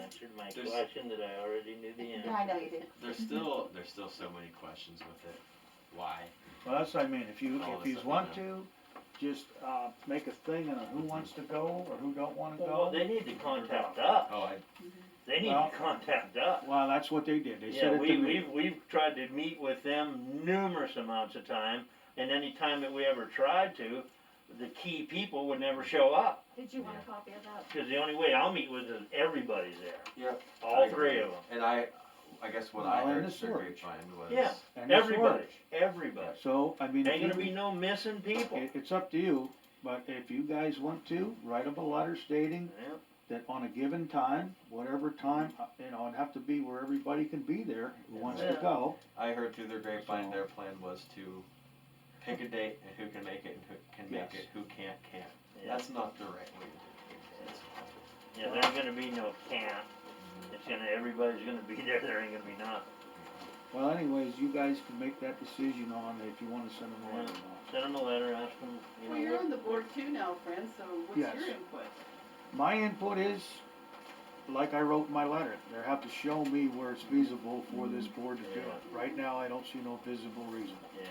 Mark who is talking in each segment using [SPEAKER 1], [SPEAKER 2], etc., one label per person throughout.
[SPEAKER 1] answered my
[SPEAKER 2] There's-
[SPEAKER 1] question that I already knew the answer.
[SPEAKER 3] Yeah, I know you did.
[SPEAKER 2] There's still there's still so many questions with it. Why?
[SPEAKER 4] Well, that's what I mean, if you,
[SPEAKER 2] All
[SPEAKER 4] if
[SPEAKER 2] this
[SPEAKER 4] you
[SPEAKER 2] stuff,
[SPEAKER 4] want
[SPEAKER 2] yeah.
[SPEAKER 4] to, just, uh, make a thing on who wants to go or who don't wanna
[SPEAKER 1] Well,
[SPEAKER 4] go.
[SPEAKER 1] they need to contact us.
[SPEAKER 2] Oh, I
[SPEAKER 1] They need
[SPEAKER 4] Well-
[SPEAKER 1] to contact us.
[SPEAKER 4] Well, that's what they did, they said
[SPEAKER 1] Yeah,
[SPEAKER 4] it to
[SPEAKER 1] we,
[SPEAKER 4] me.
[SPEAKER 1] we've, we've tried to meet with them numerous amounts of time, and any time that we ever tried to, the key people would never show up.
[SPEAKER 5] Did you want
[SPEAKER 2] Yeah.
[SPEAKER 5] a copy of that?
[SPEAKER 1] Cause the only way I'll meet with is everybody's there,
[SPEAKER 2] yeah.
[SPEAKER 1] all three of them,
[SPEAKER 2] And I I guess what I
[SPEAKER 4] Well, and
[SPEAKER 2] heard
[SPEAKER 4] this
[SPEAKER 2] through
[SPEAKER 4] works.
[SPEAKER 2] grapevine was
[SPEAKER 1] Yeah.
[SPEAKER 4] And this
[SPEAKER 1] everybody,
[SPEAKER 4] works.
[SPEAKER 1] everybody.
[SPEAKER 4] So, I mean, if
[SPEAKER 1] Ain't gonna be
[SPEAKER 4] you,
[SPEAKER 1] no missing people.
[SPEAKER 4] it, it's up to you, but if you guys want to, write up a letter stating
[SPEAKER 1] Yeah.
[SPEAKER 4] that on a given time, whatever time, uh, you know, it'd have to be where everybody can be there who wants to
[SPEAKER 1] Yeah.
[SPEAKER 4] go.
[SPEAKER 2] I heard through their grapevine
[SPEAKER 4] So-
[SPEAKER 2] their plan was to pick a date and who can make it and who can make
[SPEAKER 4] Yes.
[SPEAKER 2] it, who can't can't.
[SPEAKER 1] Yeah,
[SPEAKER 2] That's not the right way to do things.
[SPEAKER 1] Yeah, there ain't gonna be no camp, it's gonna, everybody's gonna be there, there ain't gonna be none.
[SPEAKER 4] Well, anyways, you guys can make that decision on if you wanna send them a letter or not.
[SPEAKER 1] Send them a letter, ask them, you know.
[SPEAKER 3] Well, you're
[SPEAKER 1] what-
[SPEAKER 3] on the board too now, friend, so what's
[SPEAKER 4] Yes.
[SPEAKER 3] your input?
[SPEAKER 4] My input is, like I wrote in my letter, they have to show me where it's feasible for this board to do it. Right now, I don't see no visible reason.
[SPEAKER 1] Yeah,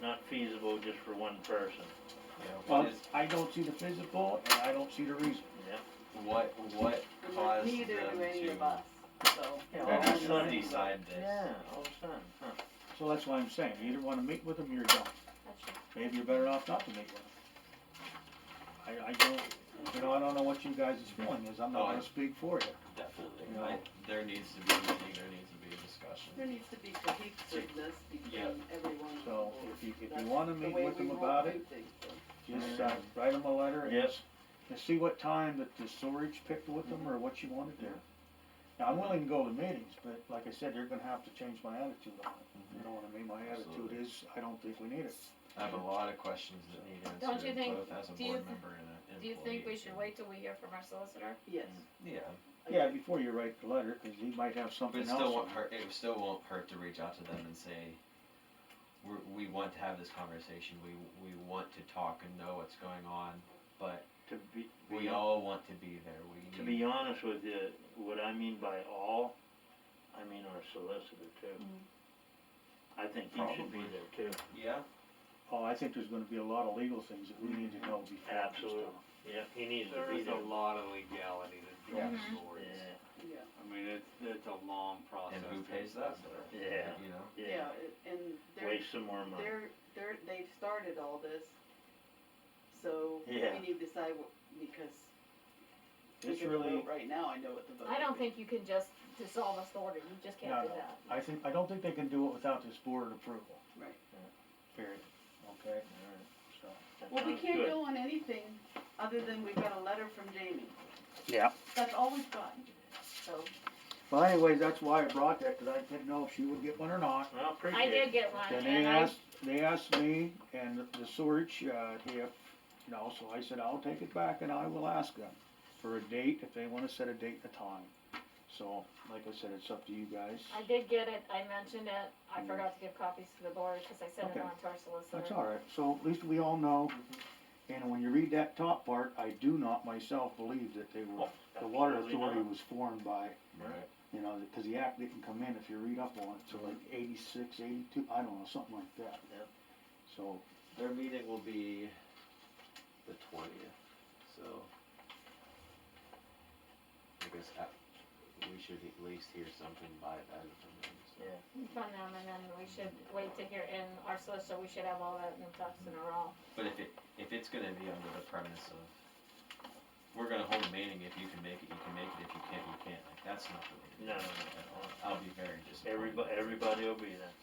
[SPEAKER 1] not feasible just for one person,
[SPEAKER 2] Yeah,
[SPEAKER 4] Well,
[SPEAKER 2] what is
[SPEAKER 4] I don't see the physical and I don't see the reason.
[SPEAKER 1] yeah.
[SPEAKER 2] what what
[SPEAKER 3] Because
[SPEAKER 2] caused
[SPEAKER 3] Neither
[SPEAKER 2] them
[SPEAKER 3] do any
[SPEAKER 2] to
[SPEAKER 3] of us, so.
[SPEAKER 1] all of a
[SPEAKER 2] just
[SPEAKER 1] sudden-
[SPEAKER 2] decide this?
[SPEAKER 1] Yeah, all of a sudden, huh.
[SPEAKER 4] So that's why I'm saying, you either wanna meet with them or you don't.
[SPEAKER 5] That's your
[SPEAKER 4] Maybe you're better off not to meet with them. I, I don't, you know, I don't know what you guys' feeling is, I'm not
[SPEAKER 2] Oh, I-
[SPEAKER 4] gonna speak for you.
[SPEAKER 2] Definitely.
[SPEAKER 4] No.
[SPEAKER 2] I, there needs to be a meeting, there needs to be a discussion.
[SPEAKER 3] There needs to be cohesiveness
[SPEAKER 2] Yeah.
[SPEAKER 3] between everyone. on the
[SPEAKER 4] So
[SPEAKER 3] board.
[SPEAKER 4] if you, if
[SPEAKER 3] That's
[SPEAKER 4] you wanna
[SPEAKER 3] the
[SPEAKER 4] meet
[SPEAKER 3] way
[SPEAKER 4] with
[SPEAKER 3] we
[SPEAKER 4] them
[SPEAKER 3] roll
[SPEAKER 4] about
[SPEAKER 3] through
[SPEAKER 4] it,
[SPEAKER 3] things,
[SPEAKER 5] Mm.
[SPEAKER 3] so.
[SPEAKER 4] just, uh, write them a letter and
[SPEAKER 1] Yep.
[SPEAKER 4] and see what time that the storage picked with them or what you wanna do. Now, I'm willing to go to meetings, but like I said, you're gonna have to change my attitude on it. You know what I mean? My attitude
[SPEAKER 2] Absolutely.
[SPEAKER 4] is, I don't think we need it.
[SPEAKER 2] I have a lot of questions that need
[SPEAKER 5] Don't
[SPEAKER 2] answered,
[SPEAKER 5] you think-
[SPEAKER 2] both as a
[SPEAKER 5] do you
[SPEAKER 2] board
[SPEAKER 5] th-
[SPEAKER 2] member and an employee.
[SPEAKER 5] Do you think we should wait till we hear from our solicitor?
[SPEAKER 3] Yes.
[SPEAKER 2] Yeah,
[SPEAKER 4] Yeah, before you write the letter, cause he might have
[SPEAKER 2] but
[SPEAKER 4] something
[SPEAKER 2] it
[SPEAKER 4] else.
[SPEAKER 2] still
[SPEAKER 4] in
[SPEAKER 2] won't
[SPEAKER 4] there.
[SPEAKER 2] hurt, it still won't hurt to reach out to them and say, we're, we want to have this conversation, we, we want to talk and know what's going on, but
[SPEAKER 1] To be,
[SPEAKER 2] we
[SPEAKER 1] be-
[SPEAKER 2] all want to be there, we need.
[SPEAKER 1] to be honest with you, what I mean by all, I mean our solicitor too.
[SPEAKER 3] Mm-hmm.
[SPEAKER 1] I think he should be
[SPEAKER 2] Probably.
[SPEAKER 1] there too.
[SPEAKER 2] Yeah,
[SPEAKER 4] Oh, I think there's gonna be a lot of legal things that we need to know before.
[SPEAKER 1] Absolutely. Yeah, he needs to
[SPEAKER 6] There
[SPEAKER 1] be
[SPEAKER 6] is a
[SPEAKER 1] there.
[SPEAKER 6] lot of legality that goes
[SPEAKER 5] Yes.
[SPEAKER 6] towards.
[SPEAKER 1] Yeah,
[SPEAKER 3] Yeah,
[SPEAKER 6] I mean, it's, it's a long process.
[SPEAKER 2] and who
[SPEAKER 6] to
[SPEAKER 2] pays that
[SPEAKER 6] get
[SPEAKER 2] bill?
[SPEAKER 1] Yeah.
[SPEAKER 2] You know,
[SPEAKER 1] yeah,
[SPEAKER 3] yeah, it- and they're,
[SPEAKER 1] waste some more money.
[SPEAKER 3] they're, they're, they've started all this, so we
[SPEAKER 1] Yeah.
[SPEAKER 3] need to decide what, because we
[SPEAKER 4] It's
[SPEAKER 3] can
[SPEAKER 4] really,
[SPEAKER 3] vote right now, I know what the vote
[SPEAKER 5] I don't
[SPEAKER 3] would be.
[SPEAKER 5] think you can just dissolve a order, you just
[SPEAKER 4] No,
[SPEAKER 5] can't do
[SPEAKER 4] no.
[SPEAKER 5] that.
[SPEAKER 4] I think, I don't think they can do it without this board approval.
[SPEAKER 3] Right.
[SPEAKER 4] Period. Okay,
[SPEAKER 1] Alright,
[SPEAKER 4] so.
[SPEAKER 1] that
[SPEAKER 3] Well, we
[SPEAKER 1] sounds
[SPEAKER 3] can't
[SPEAKER 1] good.
[SPEAKER 3] go on anything other than we got a letter from Jamie.
[SPEAKER 4] Yeah.
[SPEAKER 3] That's all we've got, so.
[SPEAKER 4] Well, anyways, that's why I brought that, cause I didn't know if she would get one or not.
[SPEAKER 1] Well,
[SPEAKER 5] I
[SPEAKER 1] appreciate
[SPEAKER 5] did
[SPEAKER 1] it.
[SPEAKER 5] get one,
[SPEAKER 4] And they
[SPEAKER 5] and I,
[SPEAKER 4] asked, they asked me and the search, uh, if, you know, so I said, I'll take it back and I will ask them for a date, if they wanna set a date and a time. So, like I said, it's up to you guys.
[SPEAKER 5] I did get it, I mentioned it, I forgot to give copies to the board, cause I sent
[SPEAKER 4] Okay.
[SPEAKER 5] it on to our solicitor.
[SPEAKER 4] That's all right, so at least we all know,
[SPEAKER 1] Mm-hmm.
[SPEAKER 4] and when you read that top part, I do not myself believe that they were,
[SPEAKER 1] Oh,
[SPEAKER 4] the water
[SPEAKER 1] absolutely
[SPEAKER 4] authority
[SPEAKER 1] not.
[SPEAKER 4] was formed by,
[SPEAKER 2] right,
[SPEAKER 4] you know, cause the act didn't come in, if you read up on it, to like eighty-six, eighty-two, I don't know, something like that.
[SPEAKER 1] Yeah.
[SPEAKER 4] So,
[SPEAKER 2] their meeting will be the twentieth, so. I guess at, we should at least hear something by then from them, so.
[SPEAKER 1] Yeah.
[SPEAKER 5] From them, and then we should wait to hear, and our solicitor, we should have all that in ducks in a row.
[SPEAKER 2] But if it, if it's gonna be under the premise of, we're gonna hold a meeting, if you can make it, you can make it, if you can't, you can't, like, that's not the way to do
[SPEAKER 1] No, no,
[SPEAKER 2] it
[SPEAKER 1] no,
[SPEAKER 2] at all. I'll be very disappointed.
[SPEAKER 1] Everybody, everybody will be there,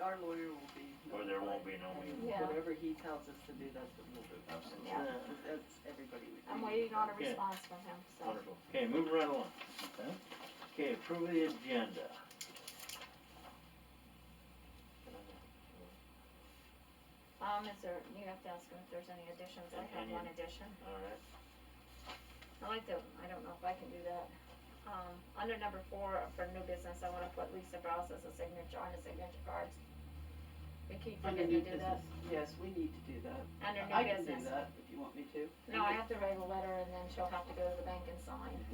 [SPEAKER 3] Our lawyer will be.
[SPEAKER 1] or there won't be no
[SPEAKER 3] notified.
[SPEAKER 1] meeting.
[SPEAKER 5] Yeah.
[SPEAKER 3] Whatever he tells us to do, that's what we'll do.
[SPEAKER 2] Absolutely.
[SPEAKER 5] Yeah.
[SPEAKER 3] That's everybody. would
[SPEAKER 5] I'm
[SPEAKER 3] be.
[SPEAKER 5] waiting on a
[SPEAKER 1] Okay.
[SPEAKER 5] response from him, so.
[SPEAKER 1] Wonderful. Okay, move right along.
[SPEAKER 4] okay,
[SPEAKER 1] Okay, approve the agenda.
[SPEAKER 5] Um, is there, you have to ask him if there's any additions, I have
[SPEAKER 1] Any-
[SPEAKER 5] one addition.
[SPEAKER 1] Alright.
[SPEAKER 5] I like to, I don't know if I can do that. Um, under number four, for new business, I wanna put Lisa Browse as a signature on the signature cards. We keep
[SPEAKER 3] Under
[SPEAKER 5] forgetting to
[SPEAKER 3] new
[SPEAKER 5] do
[SPEAKER 3] business,
[SPEAKER 5] that.
[SPEAKER 3] yes, we need to do that.
[SPEAKER 5] Under
[SPEAKER 3] I
[SPEAKER 5] new
[SPEAKER 3] can do
[SPEAKER 5] business.
[SPEAKER 3] that if you want me to.
[SPEAKER 5] No, I have to write a letter and then she'll have to go to the bank and sign.